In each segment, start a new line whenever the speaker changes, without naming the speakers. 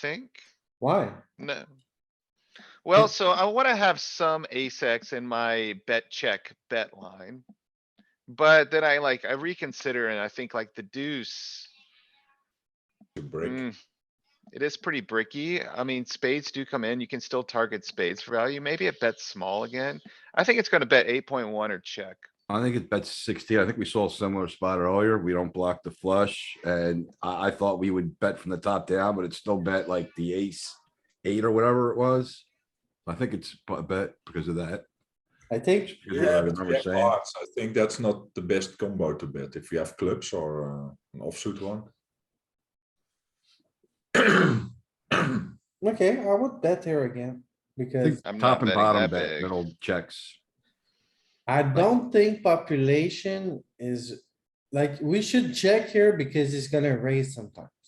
think,
Why?
no. Well,
It-
so I wanna have some ace X in my bet check bet line. But then I like, I reconsider and I think like the deuce.
to break.
mm, It is pretty bricky. I mean, spades do come in. You can still target spades for value. Maybe it bets small again. I think it's gonna bet eight point one or check.
I think it bets sixteen. I think we saw a similar spot earlier. We don't block the flush and I, I thought we would bet from the top down, but it still bet like the ace, eight or whatever it was. I think it's a bet because of that.
I think,
Because of what I
yeah,
remember
Jack
saying.
hearts, I think that's not the best combo to bet if you have clubs or uh, an offsuit one.
okay, I would bet here again,
I
because
think
I'm not
top and
betting
bottom
that
bet,
big.
middle checks.
I don't think population is, like, we should check here because he's gonna raise sometimes,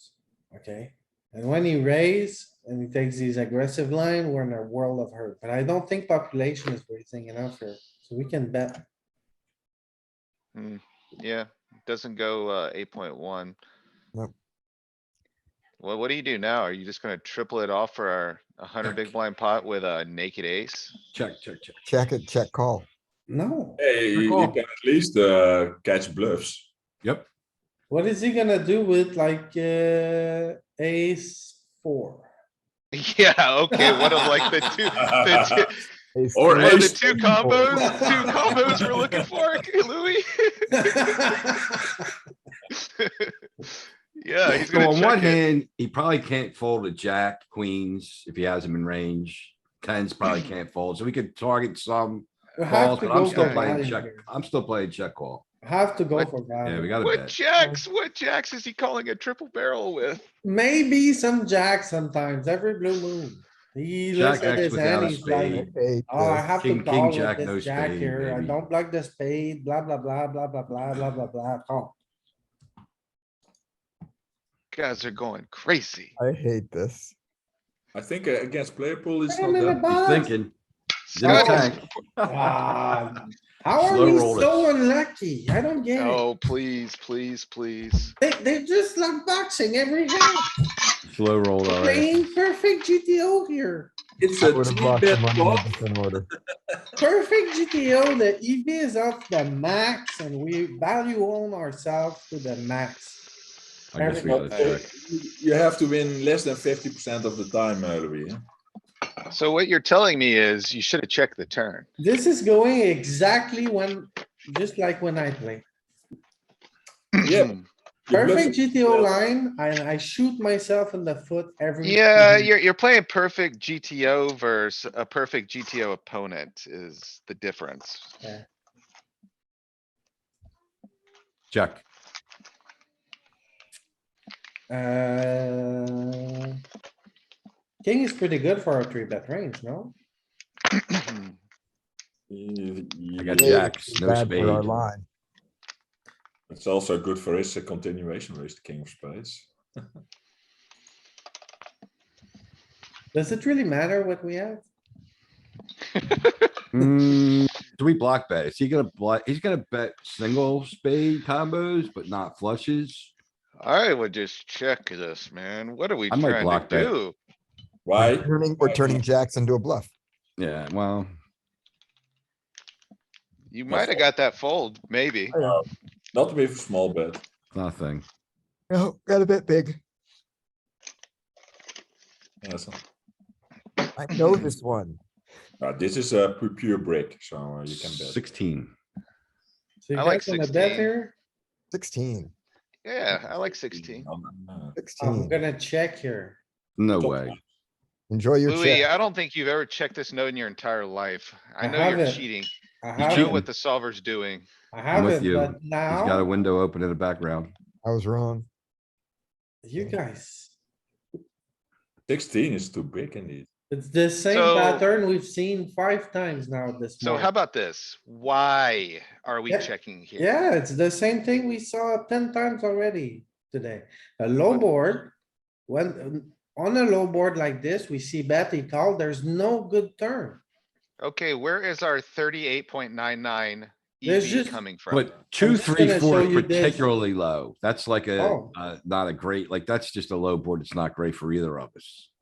okay? And when he raise and he takes these aggressive line, we're in a world of hurt, but I don't think population is raising enough here, so we can bet.
Yeah, doesn't go, uh, eight point one.
Nope.
Well, what do you do now? Are you just gonna triple it off for our a hundred big blind pot with a naked ace?
Check, check, check.
Check it, check call.
No,
Hey, you, you
call.
can at least uh, catch bluffs.
Yep.
what is he gonna do with like, uh, ace four?
Yeah, okay, one of like the two, the two,
Ace
Or
one
three.
of the
ace
two
ten.
combos, two combos we're looking for, Louis. Yeah, he's
So
gonna
on one
check it.
hand, he probably can't fold a jack, queens, if he has him in range. Tens probably can't fold, so we could target some
You have
calls,
to
but I'm
go
still
for
playing
value
check,
here.
I'm still playing check call.
Have to go
What?
for
Yeah, we
value.
got a
What
bet.
jacks, what jacks is he calling a triple barrel with?
Maybe some jack sometimes, every blue moon. He looks
Jack
at
X
his
without
hand,
a
he's
spade.
like,
Eight,
oh, I
uh,
have to
King- king,
call
jack,
with
no
this jack
spade,
here. I
maybe.
don't block the spade, blah, blah, blah, blah, blah, blah, blah, blah, blah, call.
Guys are going crazy.
I hate this.
I think uh, against player pool it's
Put
not
him in the
that.
He's
box.
thinking. he's in a
Scott is-
tank.
Ah, How are
Slow
we
roll
so unlucky? I don't get it.
Oh, please, please, please.
They, they're just like boxing every hand,
Slow roll, eh? alright.
playing perfect GTO here.
It's
I
a
would have
three
blocked
bet
him on the
pot.
opposite order.
Perfect GTO, the EV is off the max and we value on ourselves to the max.
I guess we gotta
But, uh,
check.
you- You have to win less than fifty percent of the time, uh, Louis. huh?
So what you're telling me is you should have checked the turn.
This is going exactly when, just like when I play.
Yeah. you bluff
Perfect GTO
Yeah.
line, I, I shoot myself in the foot every.
Yeah,
time.
you're, you're playing perfect GTO versus a perfect GTO opponent is the difference.
Check.
Uh, King is pretty good for our three bet range, no?
I Mm-hmm.
You-
got
you-
jacks, no
Bad for our
spade.
line.
It's also good for his uh, continuation with the king of spades.
Does it really matter what we have?
Hmm, do we block bet? Is he gonna block? He's gonna bet single spade combos, but not flushes?
I would just check this, man. What are we
I might
trying
block
to
that.
do?
Why?
Turning, we're turning jacks into a bluff.
Yeah, well,
You
No
might have
fold.
got that fold, maybe.
Uh, Not with small bet.
nothing.
No, got a bit big.
Yes.
I know this one.
Uh, this is a pu- pure brick, so uh, you can bet.
Sixteen.
So you
I like
guys wanna bet
16.
here?
Sixteen.
Yeah, I like sixteen.
Uh,
Oh, I'm
Sixteen.
gonna check here.
No
Top
way.
Enjoy your
Louis,
check.
I don't think you've ever checked this note in your entire life. I
I
know you're
haven't.
cheating.
I
You
have
know
cheating.
it,
what the solver's doing.
I
I'm
have
with
it,
you.
but
He's got a
now,
window open in the background.
I was wrong.
you guys,
Sixteen is too big indeed.
it's the same
So-
pattern we've seen five times now this
So how
month.
about this? Why are we
Yeah.
checking here?
Yeah, it's the same thing we saw ten times already today. A low
What-
board, when, on a low board like this, we see bet, he called, there's no good turn.
Okay, where is our thirty-eight point nine nine
There's
EV
just-
coming from.
But two,
just
three,
gonna
four
show
is
you this.
particularly low. That's like a,
Oh.
uh, not a great, like, that's just a low board. It's not great for either of us.